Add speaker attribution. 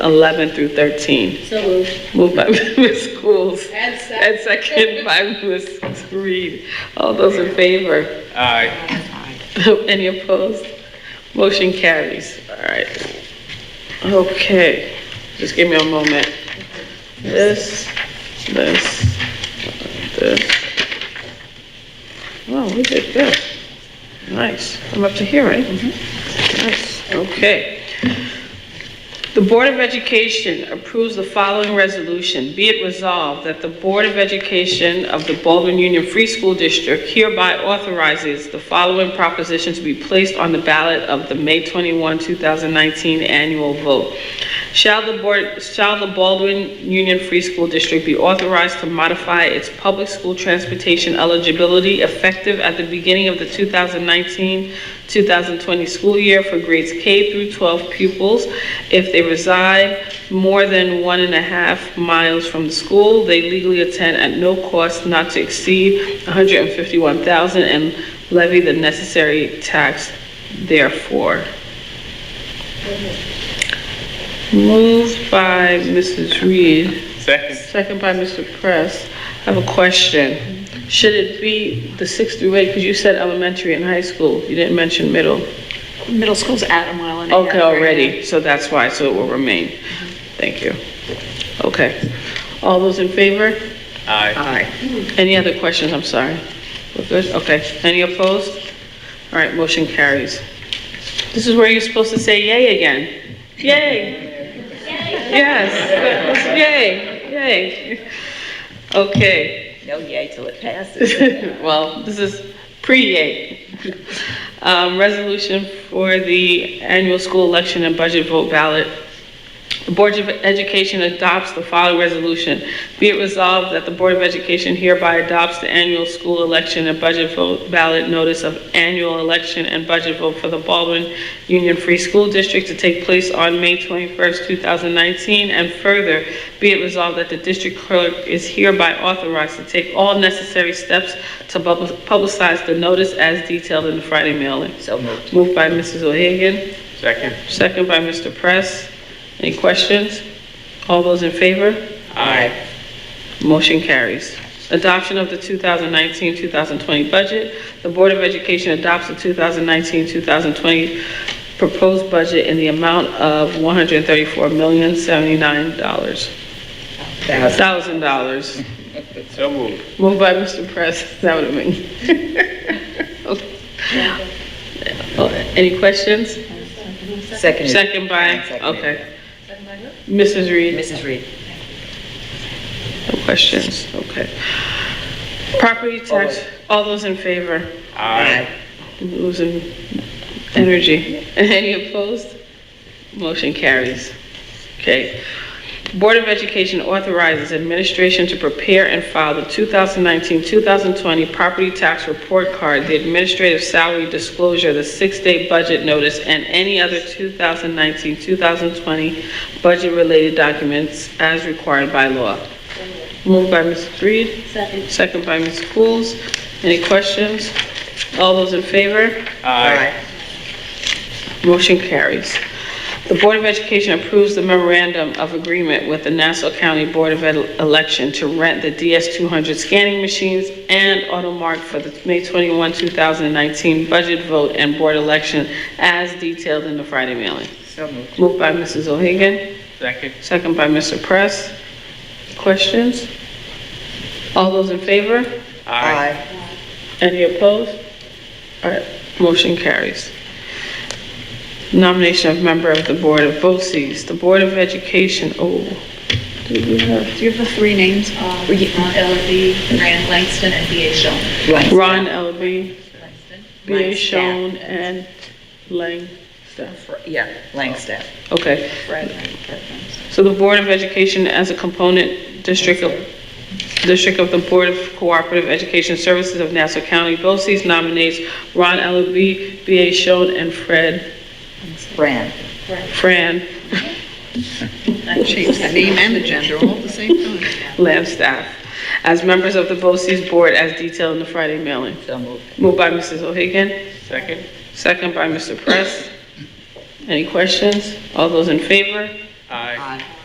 Speaker 1: 11 through 13.
Speaker 2: So moved.
Speaker 1: Moved by Ms. Schools.
Speaker 2: And second.
Speaker 1: And second by Ms. Reed. All those in favor?
Speaker 3: Aye.
Speaker 1: Any opposed? Motion carries. All right. Okay, just give me a moment. This, this, this. Wow, we did good. Nice. I'm up to here, right?
Speaker 2: Mm-hmm.
Speaker 1: Nice, okay. The Board of Education approves the following resolution. Be it resolved that the Board of Education of the Baldwin Union Free School District hereby authorizes the following proposition to be placed on the ballot of the May 21, 2019 annual vote. Shall the Board, shall the Baldwin Union Free School District be authorized to modify its public school transportation eligibility effective at the beginning of the 2019-2020 school year for grades K through 12 pupils if they reside more than one and a half miles from the school, they legally attend at no cost not to exceed 151,000 and levy the necessary tax therefore. Moved by Mrs. Reed.
Speaker 3: Second.
Speaker 1: Second by Mr. Press. I have a question. Should it be the six through eight, because you said elementary and high school, you didn't mention middle.
Speaker 4: Middle school's at a mile and a half.
Speaker 1: Okay,
Speaker 4: right
Speaker 1: already, so that's why, so it will remain. Thank you. Okay. All those in favor?
Speaker 3: Aye.
Speaker 1: Aye. Any other questions, I'm sorry? We're good, okay. Any opposed? All right, motion carries. This is where you're supposed to say yay again. Yay! Yes, yay, yay. Okay.
Speaker 5: No yay till it passes.
Speaker 1: well, this is pre-yay. Um, Resolution for the annual school election and budget vote ballot. The Board of Education adopts the following resolution. Be it resolved that the Board of Education hereby adopts the annual school election and budget vote ballot notice of annual election and budget vote for the Baldwin Union Free School District to take place on May 21st, 2019, and further, be it resolved that the district clerk is hereby authorized to take all necessary steps to pub- publicize the notice as detailed in the Friday mailing.
Speaker 5: So moved.
Speaker 1: Moved by Mrs. O'Hagan.
Speaker 3: Second.
Speaker 1: Second by Mr. Press. Any questions? All those in favor?
Speaker 3: Aye.
Speaker 1: Motion carries. Adoption of the 2019-2020 budget. The Board of Education adopts the 2019-2020 proposed budget in the amount of $134,079. Thousand dollars.
Speaker 3: So moved.
Speaker 1: Moved by Mr. Press. That would have been. Okay. Oh, Any questions?
Speaker 5: Seconded.
Speaker 1: Second by,
Speaker 5: Seconded.
Speaker 1: okay. Mrs. Reed?
Speaker 5: Mrs. Reed.
Speaker 1: No questions, okay. Property tax, all those in favor?
Speaker 3: Aye.
Speaker 1: I'm Losing energy. Any opposed? Motion carries. Okay. Board of Education authorizes administration to prepare and file the 2019-2020 property tax report card, the administrative salary disclosure, the six-day budget notice, and any other 2019-2020 budget-related documents as required by law. Moved by Ms. Reed.
Speaker 2: Second.
Speaker 1: Second by Ms. Schools. Any questions? All those in favor?
Speaker 3: Aye.
Speaker 1: Motion carries. The Board of Education approves the memorandum of agreement with the Nassau County Board of Ele- Election to rent the DS-200 scanning machines and AutoMark for the May 21, 2019 budget vote and board election as detailed in the Friday mailing.
Speaker 5: So moved.
Speaker 1: Moved by Mrs. O'Hagan,
Speaker 3: Second.
Speaker 1: second by Mr. Press. Questions? All those in favor?
Speaker 5: Aye.
Speaker 1: Any opposed? All right, motion carries. Nomination of member of the Board of BOCES, the Board of Education, oh, do we have?
Speaker 4: Do you have the three names? Uh,
Speaker 2: Um, Ron Elvey, Rand Langston, and B.A. Schulman.
Speaker 5: Right.
Speaker 1: Ron Elby,
Speaker 2: Langston.
Speaker 1: B.A.
Speaker 5: Langstaff.
Speaker 1: Schoen, and Lang staff.
Speaker 5: Yeah, Langstaff.
Speaker 1: Okay,
Speaker 5: Right.
Speaker 1: so the Board of Education as a component district of, district of the Board of Cooperative Education Services of Nassau County, BOCES nominates Ron Elby, B.A. Schoen, and Fred,
Speaker 5: Brand.
Speaker 1: Fran
Speaker 4: Change the name and the gender all at the same time.
Speaker 1: Lamb staff as members of the BOCES board as detailed in the Friday mailing.
Speaker 5: So moved.
Speaker 1: Moved by Mrs. O'Hagan,
Speaker 3: Second.
Speaker 1: second by Mr. Press. Any questions? All those in favor?
Speaker 3: Aye.